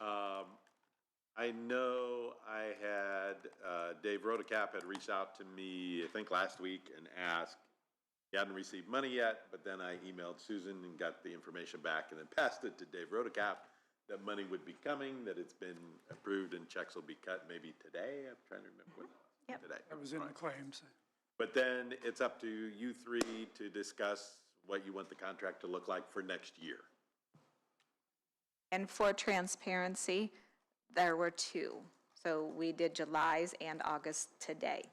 Um, I know I had, uh, Dave Rotacap had reached out to me, I think last week, and asked, he hadn't received money yet, but then I emailed Susan and got the information back and then passed it to Dave Rotacap that money would be coming, that it's been approved and checks will be cut maybe today. I'm trying to remember what, Yep. today. That was in the Right. claims. But then it's up to you three to discuss what you want the contract to look like for next year. And for transparency, there were two. So we did July's and August today.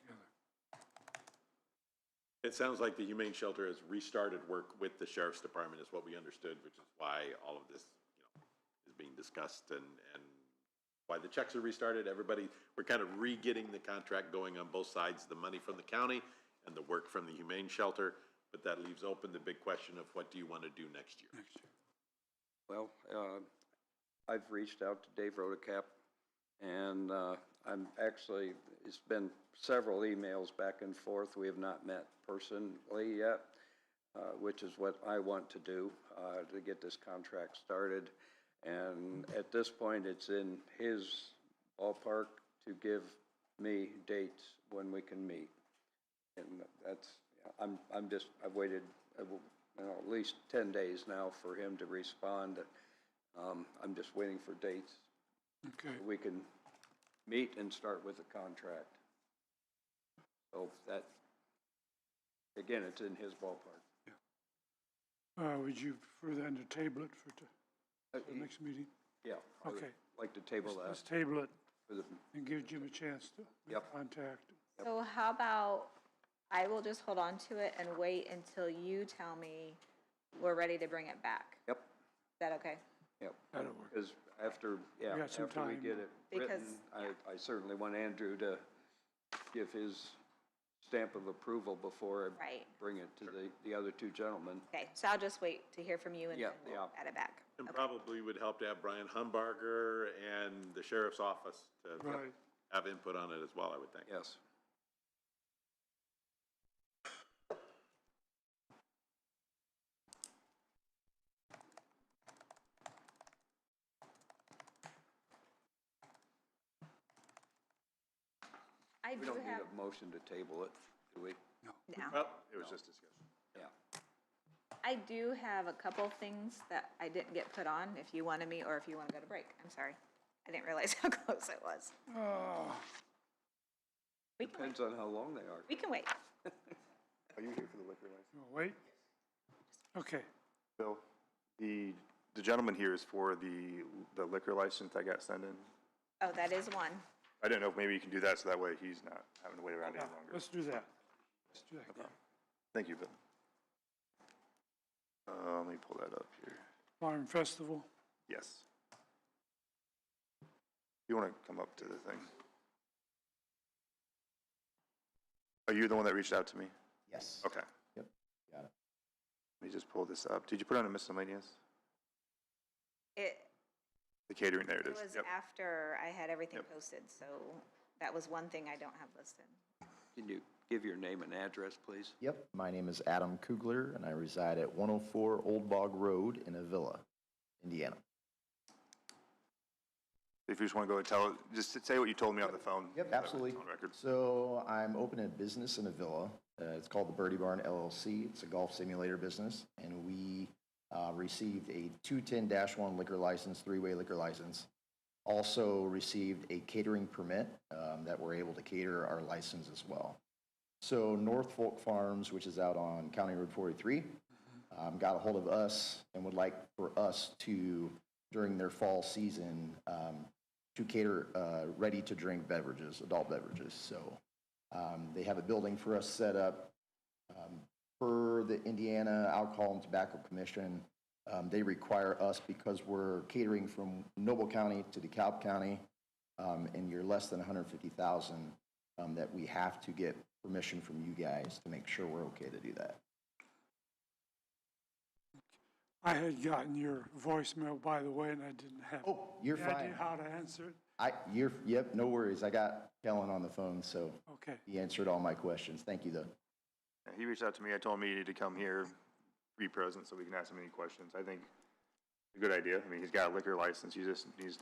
It sounds like the Humane Shelter has restarted work with the Sheriff's Department, is what we understood, which is why all of this, you know, is being discussed and, and why the checks are restarted. Everybody, we're kind of re-getting the contract going on both sides, the money from the county and the work from the Humane Shelter. But that leaves open the big question of what do you want to do next year? Well, uh, I've reached out to Dave Rotacap, and uh, I'm actually, it's been several emails back and forth. We have not met personally yet, uh, which is what I want to do, uh, to get this contract started. And at this point, it's in his ballpark to give me dates when we can meet. And that's, I'm, I'm just, I've waited, uh, w- you know, at least ten days now for him to respond. Um, I'm just waiting for dates. Okay, We can meet and start with the contract. So that, again, it's in his ballpark. uh, would you further then to table it for t- Uh, the next meeting? Yeah. I would Okay. Like to table uh, that Let's table it for the, and give Jim a chance to make Yep. contact. So how about, I will just hold on to it and wait until you tell me we're ready to bring it back. yep, Is that okay? yep. That'll work. Because after, yeah, got some after we time. get it written, Because- I, I certainly want Andrew to give his stamp of approval before I Right. bring it to the, the other two gentlemen. Okay, so I'll just wait to hear from you and then Yeah, we'll yeah. add it back. And probably would help to have Brian Humbarger and the Sheriff's Office to Right, have input on it as well, I would think. Yes. I We do don't need have, a motion to table it, do we? now, Well, it was just discussion. Yeah. I do have a couple things that I didn't get put on, if you wanted me or if you want to go to break. I'm sorry. I didn't realize how close it was. Ah, We can wait. Depends on how long they are. We can wait. Are you here for the liquor license? you'll wait? Okay, Bill, the, the gentleman here is for the, the liquor license that got sent in. Oh, that is one. I don't know if maybe you can do that, so that way he's not having to wait around any yeah, longer. let's do that. Let's do that. Thank you, Bill. Uh, let me pull that up here. Farm Festival, Yes. You want to come up to the thing? Are you the one that reached out to me? Yes. Okay. Yep, got it. Let me just pull this up. Did you put on a miscellaneous? It The catering, there it it is. was Yep. after I had everything Yep. posted, so that was one thing I don't have listed. Can you give your name and address, please? Yep, my name is Adam Kugler, and I reside at 104 Old Bog Road in Avila, Indiana. If you just want to go and tell, just say what you told me on the phone. That Yep, way absolutely. it's On record. So I'm opening a business in Avila. Uh, it's called the Birdie Barn LLC. It's a golf simulator business, and we uh, received a 210-1 liquor license, three-way liquor license. Also received a catering permit um, that we're able to cater our license as well. So North Fork Farms, which is out on County Road 43, um, got a hold of us and would like for us to, during their fall season, um, to cater uh, ready-to-drink beverages, adult beverages. So um, they have a building for us set up. Um, Per the Indiana Alcohol and Tobacco Commission, um, they require us, because we're catering from Noble County to DeKalb County, um, and you're less than 150,000, um, that we have to get permission from you guys to make sure we're okay to do that. I had gotten your voicemail, by the way, and I didn't have Oh, you're any idea fine. how to answer it. I, you're, yep, no worries. I got Kellen on the phone, so Okay, he answered all my questions. Thank you, though. Yeah, He reached out to me. I told him he needed to come here, be present, so we can ask him any questions. I think, it's a good idea. I mean, he's got a liquor license. He just needs to